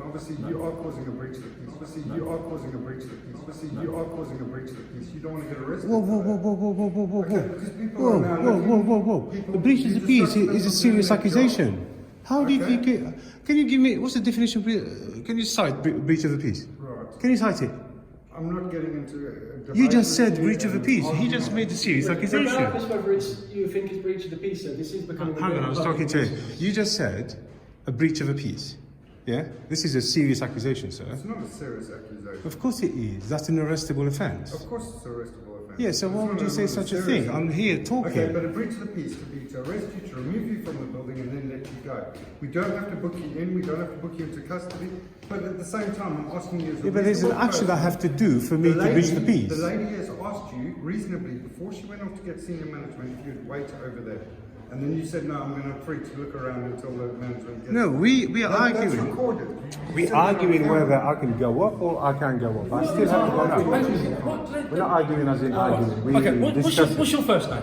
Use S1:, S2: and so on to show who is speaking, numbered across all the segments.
S1: Obviously, you are causing a breach of the peace. Obviously, you are causing a breach of the peace. Obviously, you are causing a breach of the peace. You don't want to get arrested.
S2: Whoa, whoa, whoa, whoa, whoa, whoa, whoa, whoa, whoa.
S1: Okay, these people
S2: Whoa,
S1: are now
S2: whoa,
S1: looking-
S2: whoa, whoa, whoa.
S1: people-
S2: The breach of
S1: you
S2: the peace
S1: disrupt
S2: is a
S1: them
S2: serious
S1: from doing their
S2: accusation. How did
S1: Okay.
S2: you get, can you give me, what's the definition of, bre- uh, can you cite bre- breach of the peace?
S1: Right.
S2: Can you cite it?
S1: I'm not getting into a- a
S2: You just
S1: divisive
S2: said breach of the
S1: and
S2: peace. He
S1: argument.
S2: just made a serious
S3: Regardless
S2: accusation.
S3: whether it's you think it's breach of the peace, so this is becoming. a
S2: Hang on,
S3: bit
S2: I was
S3: of a
S2: talking to
S3: public
S2: you.
S3: nuisance.
S2: You just said a breach of a peace. Yeah? This is a serious accusation, sir.
S1: It's not a serious accusation.
S2: Of course it is. That's an arrestable offence.
S1: Of course, it's an arrestable offence.
S2: Yeah, so
S1: It's
S2: why
S1: not
S2: would you say
S1: not
S2: such a
S1: serious
S2: thing? I'm here
S1: Okay, but
S2: talking.
S1: a breach of the peace could be to arrest you, to remove you from the building, and then let you go. We don't have to book you in, we don't have to book you into custody, but at the same time, I'm asking you as a
S2: Yeah, but there's an
S1: reasonable
S2: action I
S1: person-
S2: have to do for me to breach the peace.
S1: the lady has asked you reasonably before she went off to get senior management if you'd wait over there. And then you said, no, I'm going to free to look around until the management gets
S2: No, we, we are
S1: That- That's
S2: arguing.
S1: recorded. You- you
S2: We're
S1: said that on
S2: arguing
S1: camera.
S2: whether I can go up or I can go up. I still haven't gone up. We're not arguing as in arguing. We're
S4: Okay, what, what's, your,
S2: discussing.
S4: what's your first name?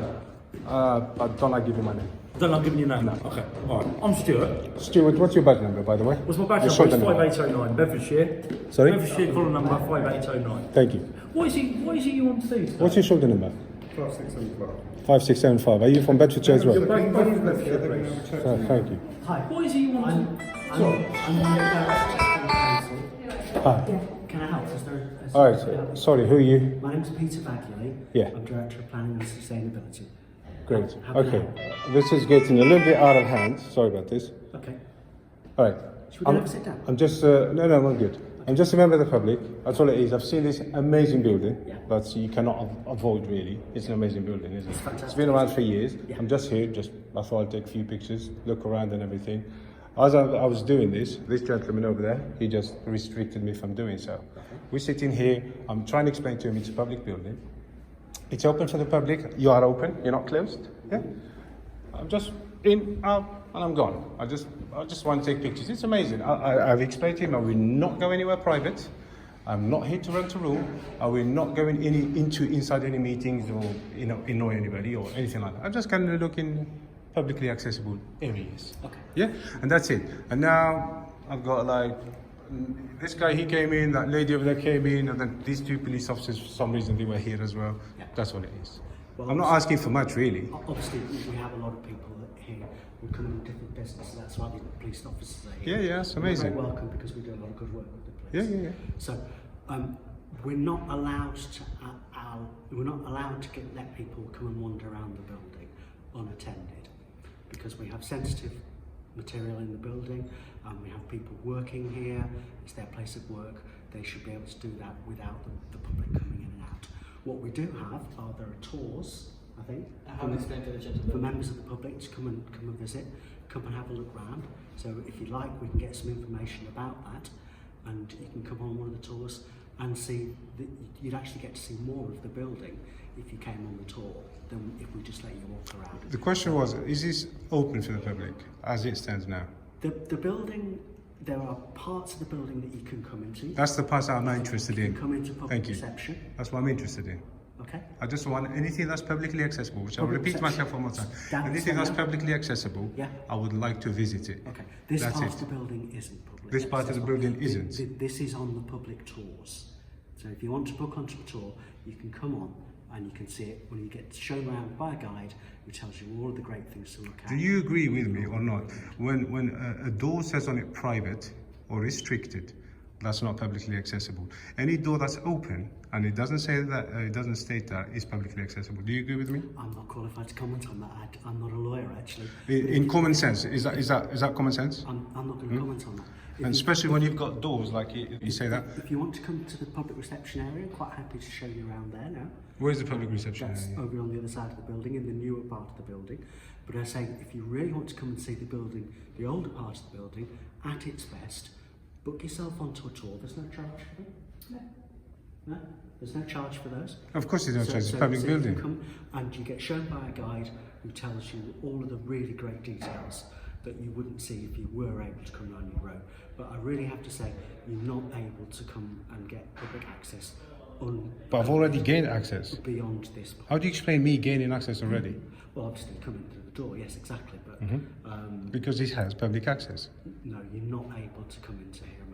S2: Uh, I don't like giving my name.
S4: Then I'll give you your name. Okay, alright. I'm Stuart.
S2: Stuart, what's your badge number, by the way?
S4: What's my badge
S2: Your
S4: number? It's
S2: shoulder
S4: 5809, Bedfordshire.
S2: Sorry?
S4: Bedfordshire column number 5809.
S2: Thank you.
S4: What is it, what is it you want to do today?
S2: What's your shoulder number?
S1: Class six and above.
S2: 5675. Are you from Bedfordshire as well?
S4: Both- both of
S1: Let's
S4: them.
S1: get them in a chat.
S2: Uh, thank you.
S3: Hi. What is it you want to? Sorry. I'm the director of the
S2: Hi.
S3: council. Can I help? Is there? is-
S2: All right, so- sorry, who are you?
S3: My name's Peter Bagley.
S2: Yeah.
S3: I'm director of planning and sustainability.
S2: Great.
S3: How can I
S2: Okay.
S3: help?
S2: This is getting a little bit out of hand. Sorry about this.
S3: Okay.
S2: All right.
S3: Should we go
S2: I'm,
S3: and have a sit down?
S2: I'm just, uh, no, no, I'm good. I'm just a member of the public. That's all it is. I've seen this amazing building
S3: Yeah.
S2: that you cannot av- avoid, really. It's an amazing building, isn't it? It's,
S3: fantastic.
S2: it's been around for years.
S3: Yeah.
S2: I'm just here, just, I thought I'd take a few pictures, look around and everything. As I, I was doing this, this gentleman over there, he just restricted me from doing so. We're sitting here, I'm trying to explain to him it's a public building. It's open for the public. You are open, you're not closed. Yeah? I'm just in, out, and I'm gone. I just, I just want to take pictures. It's amazing. I, I, I've explained to him I will not go anywhere private. I'm not here to rent a room. I will not go in any, into inside any meetings or you know annoy anybody or anything like that. I'm just kind of looking publicly accessible areas.
S3: Okay.
S2: Yeah, and that's it. And now I've got like mm, this guy he came in, that lady over there came in, and then these two police officers for some reason they were here as well.
S3: Yeah.
S2: That's all it is.
S3: Well, Oh.
S2: I'm not asking for much really.
S3: O- Obviously, we- we have a lot of people that here who come in different businesses. That's why the police officers are here.
S2: Yeah, yeah, it's
S3: And they're
S2: amazing.
S3: Very welcome because we do a lot of good work with the
S2: Yeah,
S3: police.
S2: yeah, yeah.
S3: So um, we're not allowed to uh, our, we're not allowed to get, let people come and wander around the building unattended because we have sensitive material in the building and we have people working here it's their place of work they should be able to do that without the, the public coming in and out what we do have are there are tours I think
S5: How
S3: for-
S5: extensive
S3: for members of the public to come and come and visit, come and have a look round. So if you like, we can get some information about that, and you can come on one of the tours and see. The, you'd actually get to see more of the building if you came on the tour than if we just let you walk around.
S2: The question was, is this open for the public as it stands now?
S3: The the building, there are parts of the building that you can come into.
S2: That's the part I'm not interested
S3: you can
S2: in.
S3: come into public
S2: Thank you.
S3: reception.
S2: That's what I'm interested in.
S3: Okay.
S2: I just want anything that's publicly accessible, which I'll
S3: Public
S2: repeat
S3: access-
S2: myself one more time.
S3: That's
S2: Anything that's
S3: fine.
S2: publicly accessible,
S3: Yeah.
S2: I would like to visit it.
S3: Okay. This
S2: That's
S3: part
S2: it.
S3: of the building isn't public.
S2: This part of the building
S3: Th-
S2: isn't.
S3: th- This is on the public tours. So if you want to book onto a tour, you can come on and you can see it when you get shown around by a guide who tells you all of the great things to look at.
S2: Do you agree with me or not? When, when a, a door says on it private or restricted, that's not publicly accessible. Any door that's open and it doesn't say that, uh, it doesn't state that, is publicly accessible. Do you agree with me?
S3: I'm not qualified to comment on that. I d- I'm not a lawyer actually.
S2: I- In common sense, is that, is that, is that common sense?
S3: I'm, I'm not going to comment on that. If
S2: Hmm? And
S3: you-
S2: especially when you've got doors, like you, you say that.
S3: If you want to come to the public reception area, quite happy to show you around there now.
S2: Where's the public reception
S3: That's
S2: area?
S3: over on the other side of the building, in the newer part of the building. But I say, if you really want to come and see the building, the older part of the building, at its best, book yourself onto a tour. There's no charge for them. No. No? There's no charge for those.
S2: Of course, it's not
S3: So-
S2: just it's
S3: so-
S2: a public
S3: so you
S2: building.
S3: Come and you get shown by a guide who tells you all of the really great details that you wouldn't see if you were able to come on your own. But I really have to say, you're not able to come and get public access on
S2: But I've already gained access.
S3: beyond this point.
S2: How do you explain me gaining access already?
S3: Well, obviously coming through the door,
S2: Mm-hmm.
S3: yes, exactly. But um,
S2: Because it has public access.
S3: no, you're not able to come into here